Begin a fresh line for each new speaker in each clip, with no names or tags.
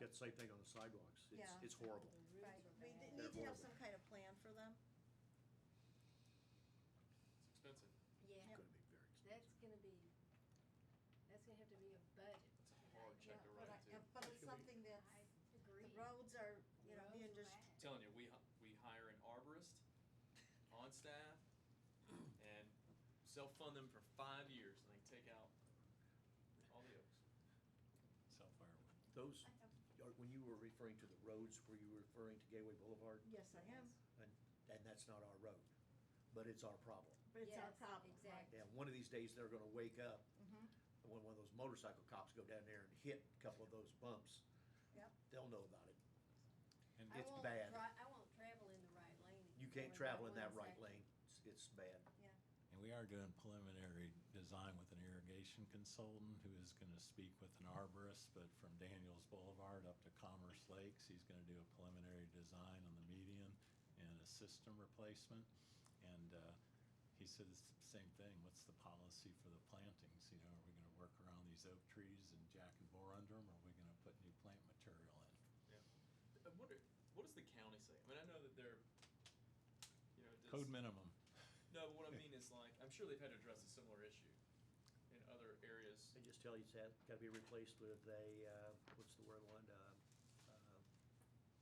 that same thing on the sidewalks. It's,
Yeah.
it's horrible.
Right, we d-
They're
need to have
horrible.
some kind of plan for them.
It's expensive.
It's
Yeah,
gonna be very
that's
expensive.
gonna be, that's gonna have to be a budget.
That's a hard check
Yeah,
to
but I-
write to.
But it's something that's,
I agree.
the roads are, you know,
Roads
being
are
just,
bad.
Telling you, we, hi- we hire an arborist on staff and self-fund them for five years and they take out all the oaks.
South Firewood.
Those,
I have-
are- when you were referring to the roads, were you referring to Gateway Boulevard?
yes, I am,
And, and that's not our road, but it's our problem.
but it's our
Yes,
problem, right?
exactly.
And one of these days, they're gonna wake up
Mhm,
when one of those motorcycle cops go down there and hit a couple of those bumps.
Yep,
They'll know about it.
And
I
It's
won't
bad.
dri- I won't travel in the right lane. if
You
it's
can't
only
travel in
got one
that right
section.
lane. It's, it's bad.
yeah.
And we are doing preliminary design with an irrigation consultant who is gonna speak with an arborist, but from Daniels Boulevard up to Commerce Lakes, he's gonna do a preliminary design on the median and a system replacement. And, uh, he said the s- same thing, what's the policy for the plantings, you know, are we gonna work around these oak trees and jack and bore under them, or are we gonna put new plant material in?
Yeah. I wonder, what does the county say? I mean, I know that they're, you know, does.
Code minimum.
No, but what I mean is like, I'm sure they've had to address a similar issue in other areas.
They just tell you it's had, gotta be replaced with a, uh, what's the word, one, uh, uh,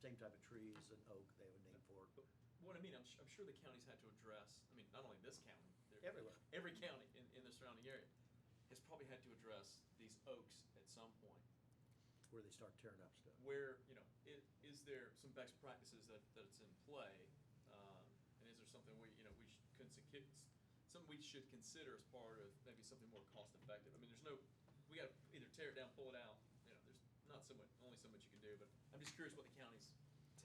same type of tree as an oak, they have a name for it.
But what I mean, I'm, su- I'm sure the county's had to address, I mean, not only this county. there-
Everywhere.
Every county in, in the surrounding area has probably had to address these oaks at some point.
Where they start tearing up stuff.
Where, you know, i- is there some best practices that, that's in play? Um, and is there something we, you know, we should consider, something we should consider as part of maybe something more cost effective? I mean, there's no, we gotta either tear it down, pull it out, you know, there's not so much, only so much you can do, but I'm just curious what the county's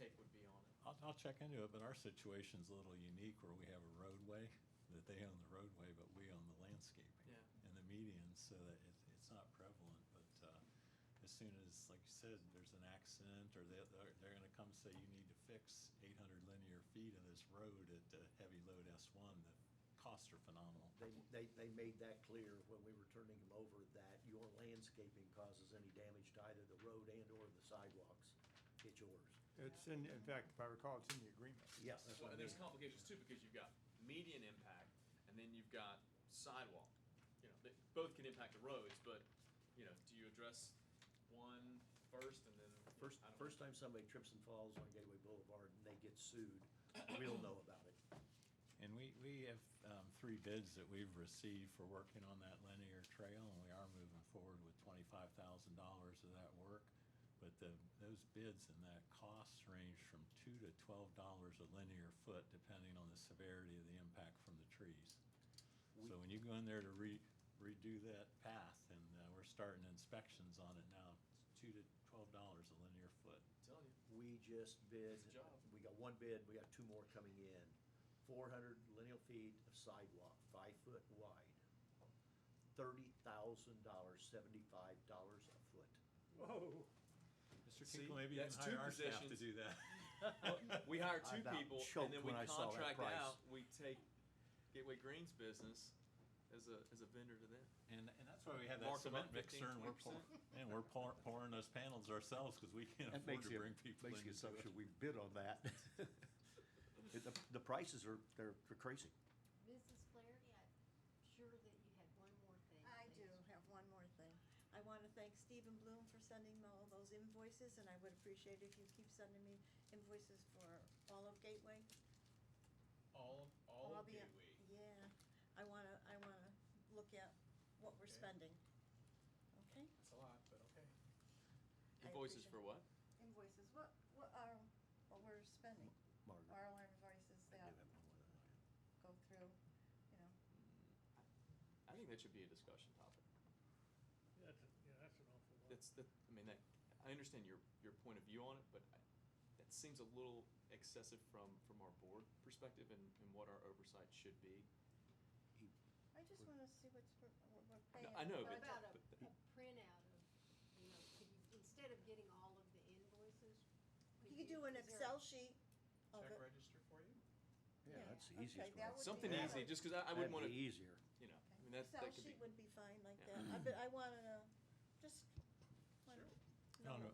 take would be on it.
I'll, I'll check into it, but our situation's a little unique where we have a roadway, that they own the roadway, but we own the landscaping.
Yeah.
And the median, so that it, it's not prevalent, but, uh, as soon as, like you said, there's an accident, or they, they're, they're gonna come say, you need to fix eight hundred linear feet of this road at, uh, heavy load S one, the costs are phenomenal.
They, they, they made that clear when we were turning them over, that your landscaping causes any damage to either the road and or the sidewalks. It's yours.
It's in, in fact, if I recall, it's in the agreement.
Yeah, that's
Well,
what I
and there's
mean.
complications too because you've got median impact and then you've got sidewalk. You know, they both can impact the roads, but you know, do you address one first and then
First,
I don't
first time somebody trips and falls on Gateway Boulevard and they get sued, we'll know about it.
And we, we have um, three bids that we've received for working on that linear trail, and we are moving forward with twenty-five thousand dollars of that work. But the, those bids and that cost range from two to twelve dollars a linear foot, depending on the severity of the impact from the trees. So when you go in there to re, redo that path, and uh, we're starting inspections on it now, it's two to twelve dollars a linear foot.
I'm telling you.
We just bid,
It's a job.
we got one bid, we got two more coming in. Four hundred lineal feet of sidewalk, five foot wide. Thirty thousand dollars, seventy-five dollars a foot.
Whoa.
Mr.
See,
Tinkle, maybe you can
that's two
hire our staff to
positions.
do that.
we hire
I
two
about
people
choked
and then we
when I saw that
contract
price.
out, we take Gateway Greens business as a as a vendor to them.
And, and that's why we have
Mark
that
them
cement
up 15,
mixer and we're pouring,
20%.
and we're pouring, pouring those panels ourselves because we can't afford to bring people in. to do it.
we bid on that. The, the prices are, they're they're crazy.
Mrs. Flaherty, I'm sure that you had one more thing.
I do
please.
have one more thing. I wanna thank Stephen Bloom for sending me all those invoices, and I would appreciate if you keep sending me invoices for all of Gateway.
All
All the- Yeah, I wanna, I wanna look at what we're
Okay.
spending. Okay?
That's a lot, but okay.
I
Invoices
appreciate
for
it.
what?
Invoices, what, what are, what we're spending,
Margaret.
are our invoices
I do
that
have one more than I
go through, you know?
I think that should be a discussion topic.
That's, a- yeah, that's an awful lot.
That's that. I mean, that I understand your your point of view on it, but I, that seems a little excessive from from our board perspective and, and what our oversight should be.
He-
I just wanna see what's, we're, we're- we're
No,
paying.
I know,
What
but-
about
but
a,
the-
a printout of, you know, could you, instead of getting all of the invoices? could
You could do an
is there a-
Excel sheet of
Check
it.
register for you?
Yeah,
Yeah,
that's the
okay, that
easiest one.
would be
Something
better.
easy, just because I, I wouldn't want
That'd
to,
be
you
easier.
know,
Okay.
I mean, that's, that could
Excel
be.
sheet would be fine like
Yeah.
that, I, but I wanna, just, wanna
Sure.
know
No,
what
no,